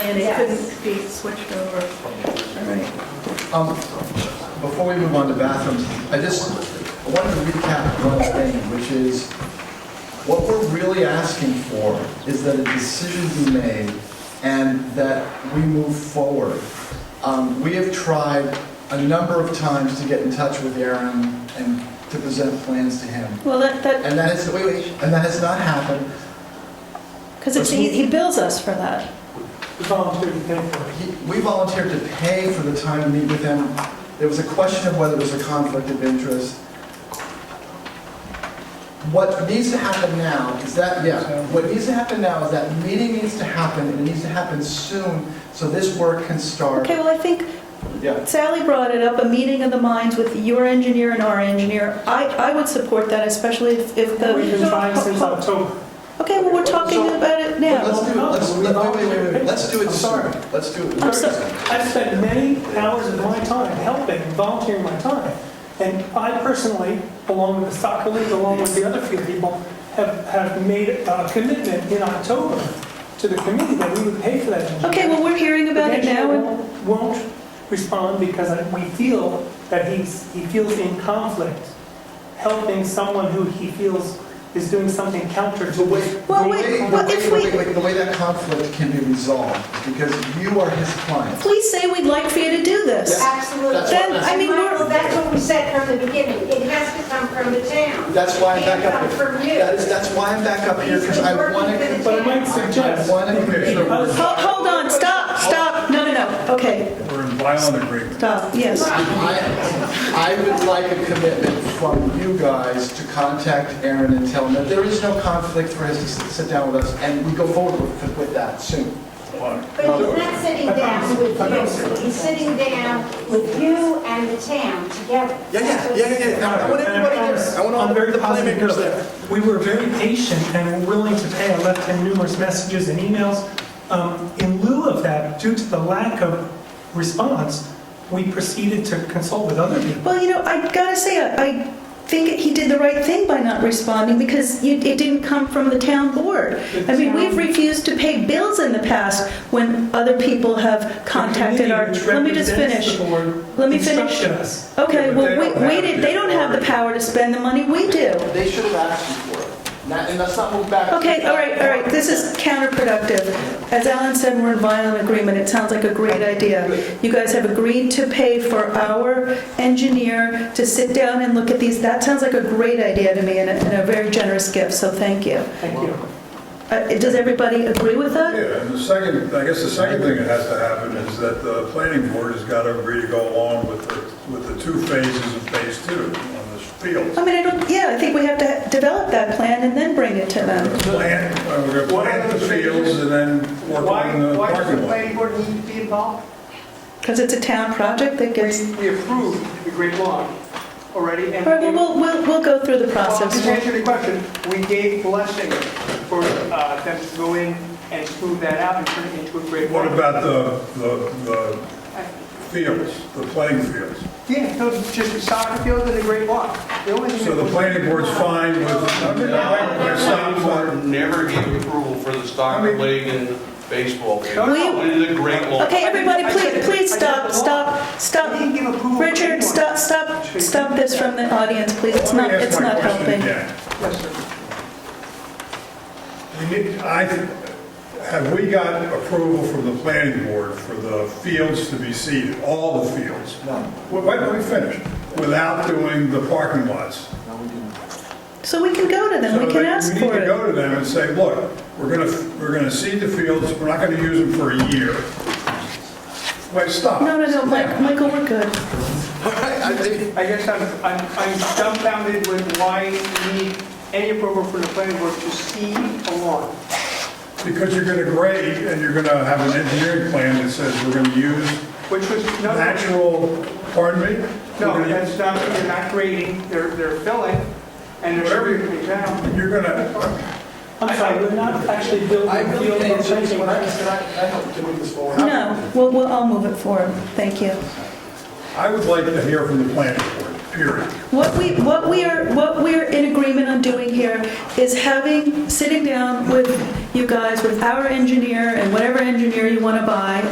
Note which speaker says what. Speaker 1: And it couldn't be switched over. All right.
Speaker 2: Um, Before we move on to bathrooms, I just I wanted to recap one thing, which is, what we're really asking for is that a decision be made and that we move forward. Um, We have tried a number of times to get in touch with Aaron and to present plans to him,
Speaker 1: Well, that, that,
Speaker 2: and that has, wait, wait, and that has not happened.
Speaker 1: because it's, he he bills us for that.
Speaker 3: We volunteered to pay for it.
Speaker 2: He- We volunteered to pay for the time to meet with him. There was a question of whether it was a conflict of interest. What needs to happen now is that, yeah, what needs to happen now is that meeting needs to happen, and it needs to happen soon, so this work can start.
Speaker 1: Okay, well, I think
Speaker 2: Yeah,
Speaker 1: Sally brought it up, a meeting of the minds with your engineer and our engineer. I, I would support that, especially if if the.
Speaker 3: We've been trying since October.
Speaker 1: Okay, well, we're talking
Speaker 2: So-
Speaker 1: about it
Speaker 2: But
Speaker 1: now.
Speaker 2: let's do it, let's, let- wait, wait, wait, wait, let's do it
Speaker 3: I'm sorry.
Speaker 2: soon. Let's do it.
Speaker 1: I'm sorry.
Speaker 3: I've spent many hours of my time helping, volunteering my time. And I personally, along with the soccer league, along with the other few people, have, have made a commitment in October to the committee that we would pay for that. engineer.
Speaker 1: Okay, well, we're hearing about it
Speaker 3: The
Speaker 1: now.
Speaker 3: engineer
Speaker 1: and-
Speaker 3: won't- Won't respond because I- we feel that he's, he feels in conflict helping someone who he feels is doing something counter to
Speaker 2: The way,
Speaker 3: what
Speaker 2: the
Speaker 1: Well, wait,
Speaker 2: way, the
Speaker 1: well,
Speaker 2: way,
Speaker 1: if
Speaker 2: the
Speaker 1: we-
Speaker 2: way- wait, the way that conflict can be resolved, because you are his client.
Speaker 1: Please say we'd like for you to do this.
Speaker 2: That's
Speaker 4: Absolutely.
Speaker 2: what-
Speaker 1: Then, I mean,
Speaker 4: Michael,
Speaker 1: we're,
Speaker 4: that's what we said from the beginning. It has to come from the town.
Speaker 2: That's why I'm back up
Speaker 4: It can't
Speaker 2: here.
Speaker 4: come from
Speaker 2: That is,
Speaker 4: you.
Speaker 2: that's why I'm back up here, because I want to,
Speaker 3: But I might suggest.
Speaker 2: I want to make sure we're-
Speaker 1: Ho- hold on, stop, stop, no, no, no, okay,
Speaker 5: We're in violent agreement.
Speaker 1: stop, yes.
Speaker 2: I, I would like a commitment from you guys to contact Aaron and tell him that there is no conflict for us to sit sit down with us, and we go forward with with that soon.
Speaker 4: But he's not sitting down with you. He's sitting down with you and the town together.
Speaker 6: Yeah, yeah, yeah, yeah, yeah. I want everybody there. I want all
Speaker 3: I'm very
Speaker 6: the
Speaker 3: positive
Speaker 6: playmakers
Speaker 3: of it.
Speaker 6: there.
Speaker 3: We were very patient and were willing to pay. I left him numerous messages and emails. Um, In lieu of that, due to the lack of response, we proceeded to consult with other people.
Speaker 1: Well, you know, I gotta say, I I think he did the right thing by not responding because you- it didn't come from the town board. I mean, we've refused to pay bills in the past when other people have contacted our,
Speaker 3: The committee which
Speaker 1: let me just
Speaker 3: represents
Speaker 1: finish.
Speaker 3: the board
Speaker 1: Let me finish.
Speaker 3: instructed us.
Speaker 1: Okay,
Speaker 5: Yeah, but
Speaker 1: well,
Speaker 5: they
Speaker 1: we,
Speaker 5: don't have
Speaker 1: we did,
Speaker 5: the
Speaker 1: they don't have the power to spend the money, we do.
Speaker 2: They should have asked you for it, And that- and let's not move back.
Speaker 1: Okay, all right, all right, this is counterproductive. As Alan said, we're in violent agreement, it sounds like a great idea. You guys have agreed to pay for our engineer to sit down and look at these, that sounds like a great idea to me and a, and a very generous gift, so thank you.
Speaker 3: Thank you.
Speaker 1: Uh, does everybody agree with that?
Speaker 5: Yeah, and the second, I guess the second thing that has to happen is that the planning board has got to agree to go along with the, with the two phases of phase two on this field.
Speaker 1: I mean, I don't, yeah, I think we have to develop that plan and then bring it to them.
Speaker 5: Plan, uh, we're going to plant the fields and then work on the parking lot.
Speaker 3: board need to be involved?
Speaker 1: Because it's a town project that gets,
Speaker 3: We approved the Great Lawn already,
Speaker 1: all right, well, we'll, we'll, we'll go through the
Speaker 7: Well,
Speaker 1: process.
Speaker 7: to answer the question, we gave blessing for uh, them to go in and smooth that out and turn it into a great
Speaker 5: What
Speaker 7: park.
Speaker 5: about the, the, the fields, the playing fields?
Speaker 7: Yeah, no, just a soccer field and a great walk. The only thing
Speaker 5: So the
Speaker 7: that-
Speaker 5: planning board's fine with, uh,
Speaker 8: The
Speaker 5: stop
Speaker 8: Stock
Speaker 5: for,
Speaker 8: Board never gave approval for the
Speaker 5: I
Speaker 8: soccer
Speaker 5: mean-
Speaker 8: league and baseball game.
Speaker 7: No,
Speaker 1: no.
Speaker 8: Only the Great Lawn.
Speaker 1: Okay, everybody,
Speaker 7: I
Speaker 1: please,
Speaker 7: said-
Speaker 1: please
Speaker 7: I said
Speaker 1: stop,
Speaker 7: the
Speaker 1: stop,
Speaker 7: We didn't
Speaker 1: stop.
Speaker 7: give approval for
Speaker 1: Richard,
Speaker 7: anyone.
Speaker 1: stop, stop, stop this from the audience, please. It's
Speaker 5: let
Speaker 1: not,
Speaker 5: me ask
Speaker 1: it's
Speaker 5: my
Speaker 1: not
Speaker 5: question
Speaker 1: helping.
Speaker 5: again.
Speaker 7: Yes, sir.
Speaker 5: We need, I, have we got approval from the planning board for the fields to be seeded, all the fields?
Speaker 2: No,
Speaker 5: Well, Wait, let me finish, without doing the parking lots.
Speaker 2: no, we didn't.
Speaker 1: So we can go to them, we
Speaker 5: So
Speaker 1: can
Speaker 5: that
Speaker 1: ask
Speaker 5: We need
Speaker 1: for
Speaker 5: to
Speaker 1: it.
Speaker 5: go to them and say, look, we're gonna, we're gonna seed the fields, we're not gonna use them for a year. Wait, stop.
Speaker 1: No, no, no, Mike-
Speaker 5: Now,
Speaker 1: Michael, we're good.
Speaker 6: I think-
Speaker 7: I guess I'm, I'm I'm dumbfounded with why we need any approval from the planning board to see a lawn.
Speaker 5: Because you're gonna grade, and you're gonna have an engineering plan that says we're gonna use
Speaker 7: Which was, no,
Speaker 5: natural, pardon me? We're
Speaker 7: no,
Speaker 5: gonna-
Speaker 7: that's not, they're not grading, they're, they're filling, and they're
Speaker 5: Whatever.
Speaker 7: smoothing it down.
Speaker 5: You're gonna,
Speaker 3: I'm sorry, we're not actually building
Speaker 2: I
Speaker 3: a
Speaker 2: really
Speaker 3: field or
Speaker 2: think, can I,
Speaker 3: changing
Speaker 2: can
Speaker 3: that.
Speaker 2: I can I help to move this forward?
Speaker 1: No, we'll, we'll, I'll move it forward. Thank you.
Speaker 5: I would like to hear from the planning board, period.
Speaker 1: What we, what we are, what we're in agreement on doing here is having, sitting down with you guys, with our engineer and whatever engineer you want to buy,